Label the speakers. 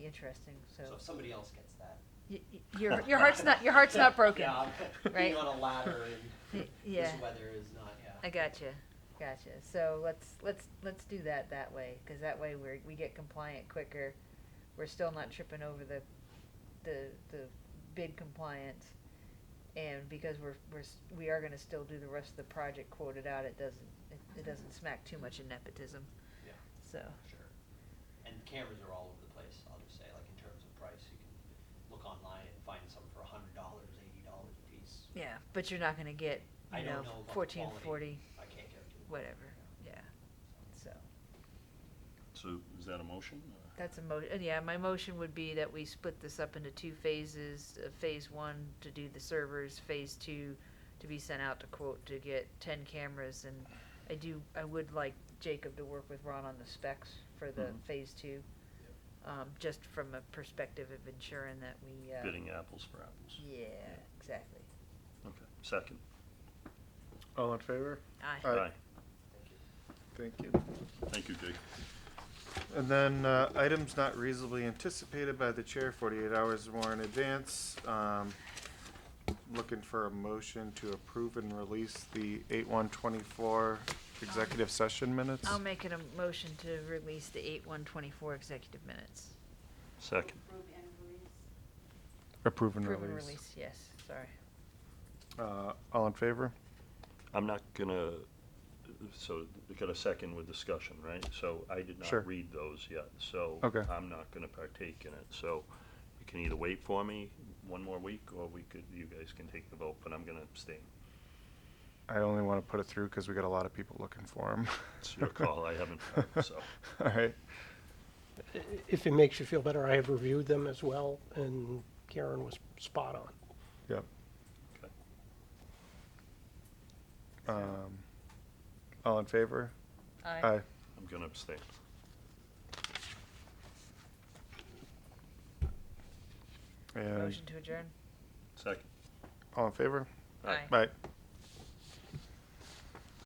Speaker 1: interesting, so.
Speaker 2: So if somebody else gets that.
Speaker 1: Y- y- Your, your heart's not, your heart's not broken.
Speaker 2: Yeah, I'm
Speaker 1: right?
Speaker 2: being on a ladder and
Speaker 1: Y-
Speaker 2: this
Speaker 1: yeah.
Speaker 2: weather is not, yeah.
Speaker 1: I gotcha, gotcha. So let's, let's, let's do that that way, cause that way we're, we get compliant quicker. We're still not tripping over the, the, the bid compliance. And because we're, we're, s- we are gonna still do the rest of the project quoted out, it doesn't, it, it doesn't smack too much of nepotism,
Speaker 2: Yeah,
Speaker 1: so.
Speaker 2: sure. And cameras are all over the place, I'll just say, like in terms of price, you can look online and find some for a hundred dollars, eighty dollars a piece.
Speaker 1: Yeah, but you're not gonna get,
Speaker 2: I
Speaker 1: you know,
Speaker 2: don't know about the
Speaker 1: fourteen forty,
Speaker 2: quality. I can't guarantee. it.
Speaker 1: whatever,
Speaker 2: Yeah.
Speaker 1: yeah, so.
Speaker 3: So is that a motion? or-
Speaker 1: That's a mo, uh, yeah, my motion would be that we split this up into two phases, uh, phase one to do the servers, phase two to be sent out to quote to get ten cameras and I do, I would like Jacob to work with Ron on the specs for the
Speaker 3: Mhm.
Speaker 1: phase two. Um, just from a perspective of ensuring that we, uh.
Speaker 3: Bidding apples for apples?
Speaker 1: Yeah, exactly.
Speaker 3: Okay, second.
Speaker 4: All in favor?
Speaker 1: Aye.
Speaker 4: Aye.
Speaker 2: Thank you.
Speaker 4: Thank you.
Speaker 3: Thank you, Jake.
Speaker 4: And then, uh, items not reasonably anticipated by the chair, forty-eight hours or more in advance. Um, looking for a motion to approve and release the eight one twenty-four executive session minutes.
Speaker 1: I'll make it a motion to release the eight one twenty-four executive minutes.
Speaker 3: Second.
Speaker 5: Approve and release.
Speaker 4: Approve and
Speaker 1: Approve and
Speaker 4: release.
Speaker 1: release, yes, sorry.
Speaker 4: Uh, all in favor?
Speaker 3: I'm not gonna, so, we got a second with discussion, right? So I did
Speaker 4: Sure.
Speaker 3: not read those yet, so.
Speaker 4: Okay.
Speaker 3: I'm not gonna partake in it, so you can either wait for me one more week, or we could, you guys can take the vote, but I'm gonna abstain.
Speaker 4: I only wanna put it through because we got a lot of people looking for them.
Speaker 3: It's your call, I haven't heard, so.
Speaker 4: All right.
Speaker 6: I- If it makes you feel better, I have reviewed them as well, and Karen was spot on.
Speaker 4: Yep.
Speaker 3: okay.
Speaker 4: Um, all in favor?
Speaker 1: Aye.
Speaker 3: I'm gonna abstain.
Speaker 4: And
Speaker 1: Motion to adjourn?
Speaker 3: Second.
Speaker 4: all in favor?
Speaker 3: Aye.
Speaker 4: Bye.